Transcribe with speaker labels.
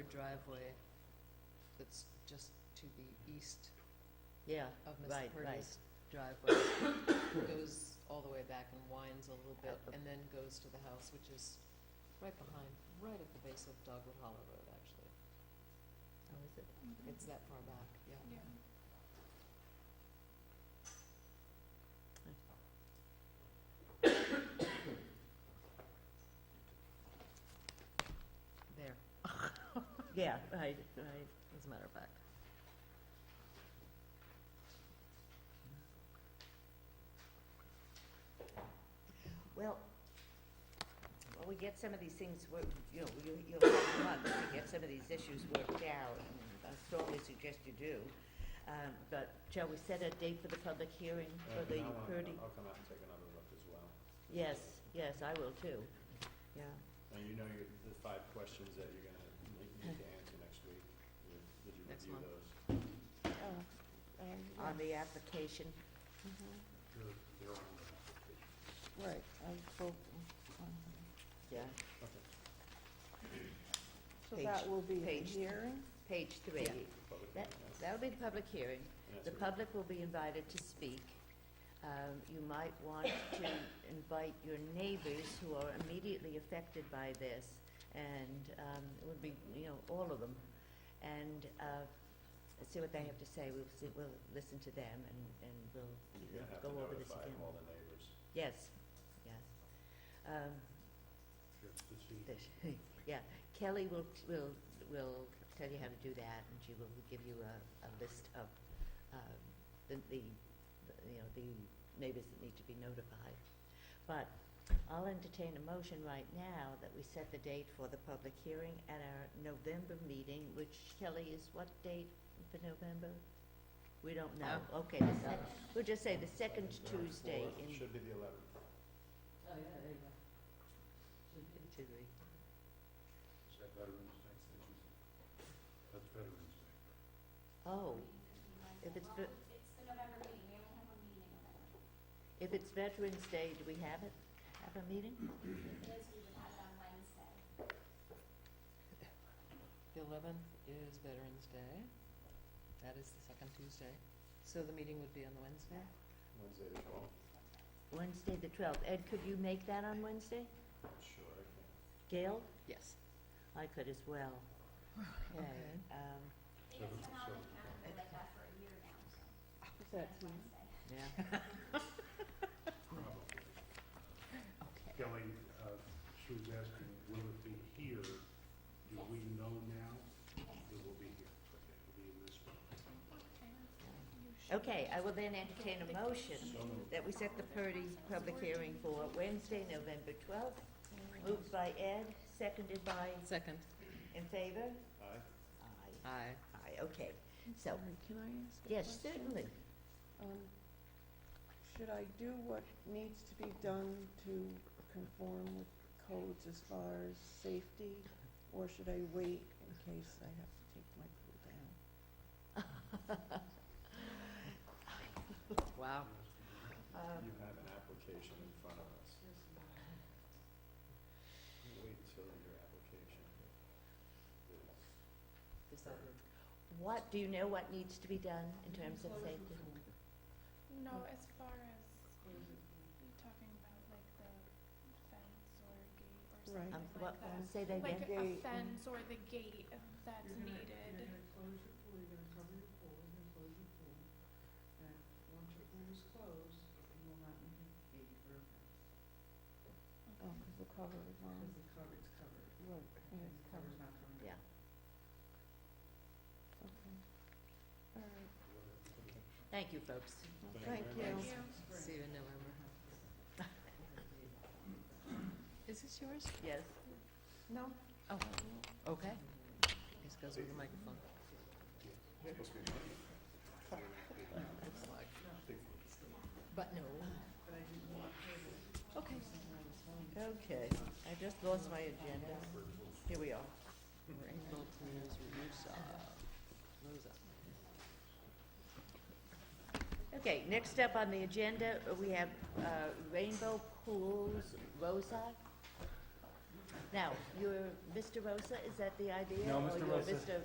Speaker 1: driveway that's just to the east
Speaker 2: Yeah,
Speaker 1: of Mr.
Speaker 2: right, right.
Speaker 1: Purdy's driveway. Goes all the way back and winds a little bit and then goes to the house, which is right behind, right at the base of Dogwood Hollow Road, actually.
Speaker 2: How Oh, is it?
Speaker 1: It's that far back, yeah.
Speaker 3: Oh,
Speaker 1: There,
Speaker 2: Yeah, right, right.
Speaker 1: as a matter of fact.
Speaker 2: Well, well, we get some of these things, wor- you know, you, you'll have months to get some of these issues worked out, and I strongly suggest you do. Um, but shall we set a date for the public hearing
Speaker 4: Uh,
Speaker 2: for the
Speaker 4: no, I'll-
Speaker 2: Purdy?
Speaker 4: I'll come out and take another look as well.
Speaker 2: Yes, yes, I will too, yeah.
Speaker 4: Now, you know your- the five questions that you're gonna need need to answer next week. Did did you
Speaker 1: Next
Speaker 4: review
Speaker 1: month.
Speaker 4: those?
Speaker 3: um,
Speaker 2: On the application,
Speaker 3: mm-hmm. Right, I spoke,
Speaker 2: yeah,
Speaker 4: Okay,
Speaker 3: so
Speaker 2: Page-
Speaker 3: that will be a
Speaker 2: page-
Speaker 3: hearing?
Speaker 2: page three.
Speaker 1: Yeah.
Speaker 4: public
Speaker 2: That,
Speaker 4: comment, yes.
Speaker 2: that'll be the public hearing.
Speaker 4: And that's
Speaker 2: The
Speaker 4: what-
Speaker 2: public will be invited to speak. Um, You might want to invite your neighbors who are immediately affected by this, and um, it would be, you know, all of them, and uh, see what they have to say. We'll, see- we'll listen to them, and, and we'll
Speaker 4: You're gonna have
Speaker 2: go
Speaker 4: to
Speaker 2: over this
Speaker 4: notify
Speaker 2: again.
Speaker 4: all the neighbors.
Speaker 2: Yes, yes. Um, this- Yeah, Kelly will, will, will tell you how to do that, and she will give you a, a list of, um, the, the, the, you know, the neighbors that need to be notified. But I'll entertain a motion right now that we set the date for the public hearing at our November meeting, which Kelly is what date for November? We don't know, okay, the sec, we'll just say the second Tuesday
Speaker 4: Fourth
Speaker 2: in
Speaker 4: Should be the eleventh.
Speaker 1: Oh, yeah, there you go.
Speaker 2: should we?
Speaker 4: That's Veterans Day.
Speaker 2: Oh, if it's, ve-
Speaker 5: It's the November meeting, we only have a meeting in November.
Speaker 2: if it's Veterans Day, do we have it, have a meeting?
Speaker 5: Liz, we would have it on Wednesday.
Speaker 1: The eleventh is Veterans Day. That is the second Tuesday. So the meeting would be on the Wednesday?
Speaker 4: Wednesday the twelfth.
Speaker 2: Wednesday, the twelfth. Ed, could you make that on Wednesday?
Speaker 4: Sure, I can.
Speaker 2: Gail?
Speaker 1: Yes.
Speaker 2: I could as well. Okay. Um,
Speaker 5: It has been on the calendar like that for a year now, so
Speaker 3: Is that
Speaker 5: that's
Speaker 3: you?
Speaker 5: Wednesday.
Speaker 2: yeah.
Speaker 6: Probably.
Speaker 1: Okay.
Speaker 6: Kelly, uh, she was asking, will it be here? Do we know now? It will be here. Okay, It'll be in this one.
Speaker 2: Okay, I will then entertain a motion that we set the Purdy public hearing for Wednesday, November twelfth. Moved by Ed, seconded by,
Speaker 1: Second.
Speaker 2: in favor?
Speaker 4: Aye?
Speaker 2: Aye.
Speaker 1: Aye.
Speaker 2: Aye, okay. So,
Speaker 3: Sorry, Can I ask a question?
Speaker 2: yes, certainly.
Speaker 3: Um, Should I do what needs to be done to conform with codes as far as safety? Or should I wait in case I have to take my pool down?
Speaker 1: Wow.
Speaker 2: Um,
Speaker 4: You have an application in front of us. Wait until your application is
Speaker 1: Is that it?
Speaker 2: What, do you know what needs to be done in terms of safety?
Speaker 7: No, as far as you talking about like the fence or gate or
Speaker 3: Right.
Speaker 7: something
Speaker 2: Um,
Speaker 7: like
Speaker 2: what,
Speaker 7: that.
Speaker 2: say that again?
Speaker 7: Like a
Speaker 3: Gate and-
Speaker 7: fence or the gate if that's needed.
Speaker 3: Oh, because the cover is on. Because the cover is covered. Right, yeah, it's covered.
Speaker 2: Yeah.
Speaker 3: Okay. All right.
Speaker 2: Thank you, folks.
Speaker 3: Well,
Speaker 4: Thank you
Speaker 3: Thank
Speaker 4: very much.
Speaker 3: you.
Speaker 7: Yeah.
Speaker 1: See you in November. Is this yours?
Speaker 2: Yes.
Speaker 3: No,
Speaker 1: Oh, okay. This goes with the microphone. But no.
Speaker 3: okay.
Speaker 2: Okay, I just lost my agenda. Here we are.
Speaker 1: Mapleton's Rusa. Rusa.
Speaker 2: Okay, next up on the agenda, uh, we have uh, Rainbow Pools Rosa. Now, you're Mr. Rosa, is that the idea?
Speaker 6: No,
Speaker 2: Or
Speaker 6: Mr.
Speaker 2: you're
Speaker 6: Rosa.
Speaker 2: Mr.